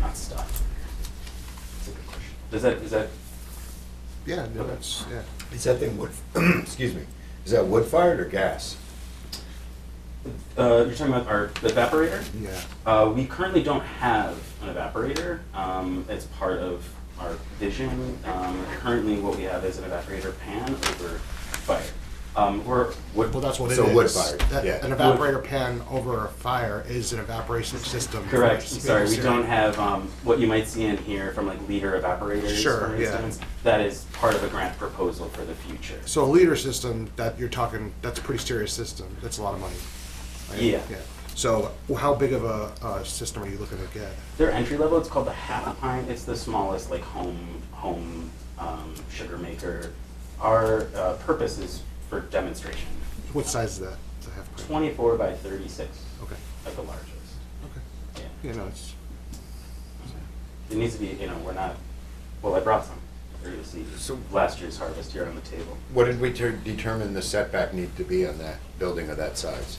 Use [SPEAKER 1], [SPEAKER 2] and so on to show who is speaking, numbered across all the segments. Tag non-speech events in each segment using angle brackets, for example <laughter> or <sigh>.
[SPEAKER 1] that stuff? That's a good question. Does that, is that,
[SPEAKER 2] Yeah, no, that's, yeah.
[SPEAKER 3] Is that thing wood, <clears throat> excuse me, is that wood fired or gas?
[SPEAKER 1] uh, you're talking about our the evaporator?
[SPEAKER 2] Yeah.
[SPEAKER 1] Uh, we currently don't have an evaporator. Um, it's part of our vision. Um, currently, what we have is an evaporator pan over fire. Um, we're wood.
[SPEAKER 2] Well, that's what it is.
[SPEAKER 3] So wood fired,
[SPEAKER 2] That-
[SPEAKER 3] yeah.
[SPEAKER 2] An evaporator pan over a fire is an evaporation system.
[SPEAKER 1] Correct.
[SPEAKER 2] It's
[SPEAKER 1] I'm sorry, we
[SPEAKER 2] very
[SPEAKER 1] don't have um, what you might see in here from like leader evaporators,
[SPEAKER 2] Sure,
[SPEAKER 1] for
[SPEAKER 2] yeah.
[SPEAKER 1] instance. That is part of a grant proposal for the future.
[SPEAKER 2] So a leader system, that you're talking, that's a pretty serious system, that's a lot of money. right?
[SPEAKER 1] Yeah.
[SPEAKER 2] So well, how big of a, uh system are you looking to get?
[SPEAKER 1] Their entry level, it's called the half pint. It's the smallest like home home um, sugar maker. Our uh, purpose is for demonstration.
[SPEAKER 2] What size is that? It's a half pint.
[SPEAKER 1] Twenty four by thirty six,
[SPEAKER 2] Okay,
[SPEAKER 1] like the largest.
[SPEAKER 2] okay.
[SPEAKER 1] Yeah.
[SPEAKER 2] Yeah, no, it's,
[SPEAKER 1] It needs to be. You know, we're not. Well, I brought some. for you to see
[SPEAKER 3] So-
[SPEAKER 1] last year's harvest here on the table.
[SPEAKER 3] What did we ter- determine the setback need to be on that building of that size?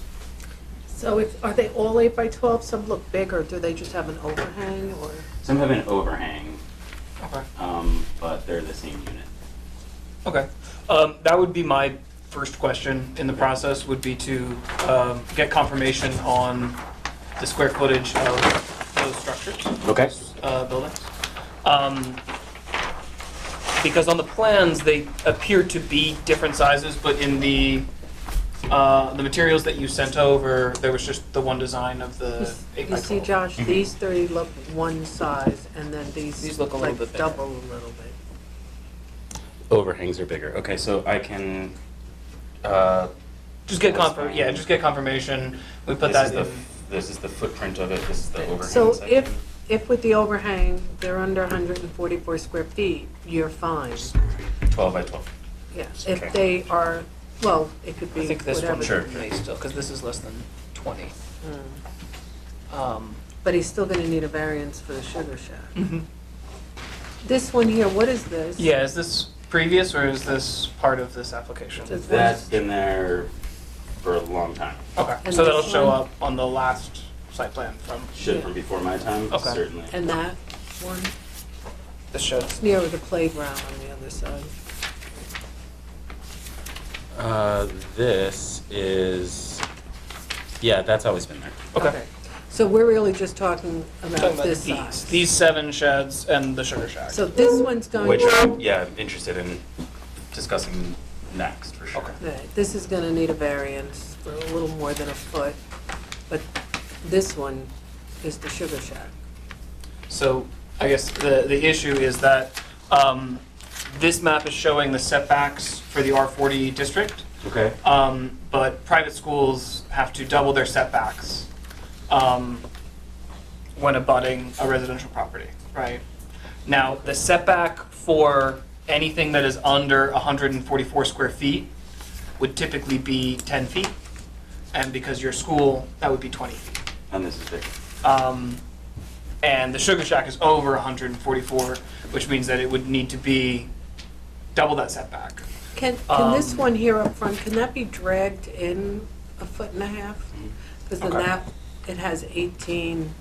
[SPEAKER 4] So if, are they all eight by twelve? Some look big, or do they just have an overhang, or?
[SPEAKER 1] Some have an overhang,
[SPEAKER 5] Okay.
[SPEAKER 1] um, but they're the same unit.
[SPEAKER 5] Okay. Um, that would be my first question in the process would be to um, get confirmation on the square footage of those structures,
[SPEAKER 1] Okay.
[SPEAKER 5] uh, buildings. Um, because on the plans they appear to be different sizes, but in the uh, the materials that you sent over, there was just the one design of
[SPEAKER 4] You s-
[SPEAKER 5] the Uh, eight
[SPEAKER 4] You
[SPEAKER 5] by
[SPEAKER 4] see,
[SPEAKER 5] twelve.
[SPEAKER 4] Josh, these three look one size, and then
[SPEAKER 5] These
[SPEAKER 4] these
[SPEAKER 5] look a little bit
[SPEAKER 4] like
[SPEAKER 5] bigger.
[SPEAKER 4] double a little bit.
[SPEAKER 1] Overhangs are bigger. Okay, so I can. Uh,
[SPEAKER 5] Just get confirm. Yeah, just get confirmation. We put
[SPEAKER 1] this is
[SPEAKER 5] that
[SPEAKER 1] the
[SPEAKER 5] in.
[SPEAKER 1] f- this is the footprint of it. This is the overhang.
[SPEAKER 4] So
[SPEAKER 1] section.
[SPEAKER 4] if, if with the overhang, they're under hundred and forty-four square feet, you're fine.
[SPEAKER 1] twelve by twelve.
[SPEAKER 4] Yeah,
[SPEAKER 1] Okay.
[SPEAKER 4] if they are, well, it could be
[SPEAKER 5] I think this
[SPEAKER 4] whatever.
[SPEAKER 5] one
[SPEAKER 1] Sure.
[SPEAKER 5] may still, because this is less than 20.
[SPEAKER 4] Mm.
[SPEAKER 5] Um,
[SPEAKER 4] But he's still gonna need a variance for the sugar shack. This one here, what is this?
[SPEAKER 5] Yeah, is this previous or is this part of this application?
[SPEAKER 4] Does
[SPEAKER 1] That's been there for a long time.
[SPEAKER 5] Okay,
[SPEAKER 4] And
[SPEAKER 5] so that'll
[SPEAKER 4] this
[SPEAKER 5] show
[SPEAKER 4] one?
[SPEAKER 5] up on the last site plan from,
[SPEAKER 1] Should
[SPEAKER 4] Yeah.
[SPEAKER 1] from before my time,
[SPEAKER 5] Okay.
[SPEAKER 1] certainly.
[SPEAKER 4] And that one,
[SPEAKER 5] this shows.
[SPEAKER 4] near the playground on the other side.
[SPEAKER 1] Uh, this is, yeah, that's always been there.
[SPEAKER 5] Okay.
[SPEAKER 4] So we're really just talking
[SPEAKER 5] Talking
[SPEAKER 4] about
[SPEAKER 5] about
[SPEAKER 4] this
[SPEAKER 5] these,
[SPEAKER 4] size.
[SPEAKER 5] these seven sheds and the sugar shack.
[SPEAKER 4] So this one's going,
[SPEAKER 1] Which, I'm, yeah, I'm interested in discussing next for sure.
[SPEAKER 5] Okay.
[SPEAKER 4] Right, this is gonna need a variance for a little more than a foot, but this one is the sugar shack.
[SPEAKER 5] So I guess the, the issue is that um, this map is showing the setbacks for the R40 district.
[SPEAKER 1] Okay.
[SPEAKER 5] Um, but private schools have to double their setbacks um, when abutting a residential property, right? Now, the setback for anything that is under 144 square feet would typically be 10 feet, and because your school, that would be 20 feet.
[SPEAKER 1] And this is bigger.
[SPEAKER 5] Um, and the Sugar Shack is over 144, which means that it would need to be double that setback.
[SPEAKER 4] Can, can this
[SPEAKER 5] Um,
[SPEAKER 4] one here up front, can that be dragged in a foot and a half? Because the
[SPEAKER 5] Mm-hmm. Okay.
[SPEAKER 4] map, it has 18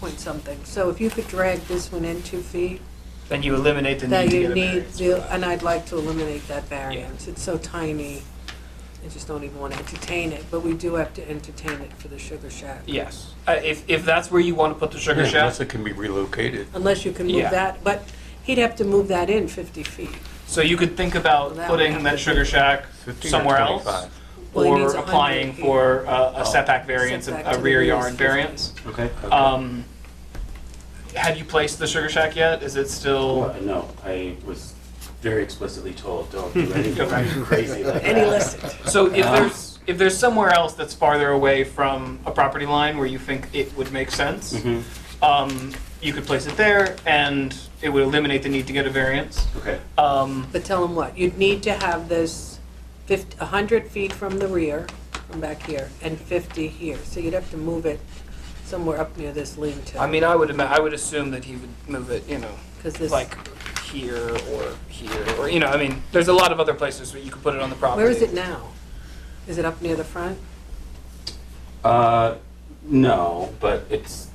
[SPEAKER 4] point something. So if you could drag this one in two feet,
[SPEAKER 5] Then you eliminate the need
[SPEAKER 4] that
[SPEAKER 5] to get
[SPEAKER 4] you
[SPEAKER 5] a
[SPEAKER 4] need,
[SPEAKER 5] variance for
[SPEAKER 4] the-
[SPEAKER 5] that.
[SPEAKER 4] and I'd like to eliminate that variance. It's so tiny, I just don't even want to entertain it, but we do have to entertain it for the Sugar Shack.
[SPEAKER 5] Yes. Uh, if, if that's where you want to put the sugar
[SPEAKER 6] Yeah,
[SPEAKER 5] shack,
[SPEAKER 6] Unless it can be relocated.
[SPEAKER 4] Unless you can
[SPEAKER 5] Yeah.
[SPEAKER 4] move that, but he'd have to move that in 50 feet.
[SPEAKER 5] so you could think about
[SPEAKER 4] Well, that would
[SPEAKER 5] putting
[SPEAKER 4] have
[SPEAKER 5] that
[SPEAKER 4] to
[SPEAKER 5] sugar shack
[SPEAKER 6] 15 or
[SPEAKER 5] somewhere else,
[SPEAKER 6] 25.
[SPEAKER 4] Well, he
[SPEAKER 5] or
[SPEAKER 4] needs a hundred
[SPEAKER 5] applying
[SPEAKER 4] feet.
[SPEAKER 5] for uh,
[SPEAKER 6] Oh.
[SPEAKER 5] a setback variance, a-
[SPEAKER 4] Setback
[SPEAKER 5] a
[SPEAKER 4] to the
[SPEAKER 5] rear
[SPEAKER 4] rear is
[SPEAKER 5] yard
[SPEAKER 4] 50.
[SPEAKER 5] variance.
[SPEAKER 1] Okay.
[SPEAKER 5] Um, have you placed the sugar shack yet? Is it still?
[SPEAKER 1] no, I was very explicitly told, don't <laughs> do anything
[SPEAKER 5] Okay.
[SPEAKER 1] crazy like that.
[SPEAKER 4] And he listened.
[SPEAKER 5] So if
[SPEAKER 1] Uh,
[SPEAKER 6] Uh-huh.
[SPEAKER 5] there's if there's somewhere else that's farther away from a property line where you think it would make sense,
[SPEAKER 1] Mhm.
[SPEAKER 6] Mm-hmm.
[SPEAKER 5] um, you could place it there, and it would eliminate the need to get a variance.
[SPEAKER 1] Okay.
[SPEAKER 5] Um,
[SPEAKER 4] But tell them what, you'd need to have this fifty, a hundred feet from the rear, from back here, and fifty here, so you'd have to move it somewhere up near this lean-to.
[SPEAKER 5] I mean, I would ima- I would assume that he would move it, you know,
[SPEAKER 4] 'Cause this-
[SPEAKER 5] like here or here or you know, I mean, there's a lot of other places where you could put it on the property.
[SPEAKER 4] Where is it now? Is it up near the front?
[SPEAKER 1] Uh, no, but it's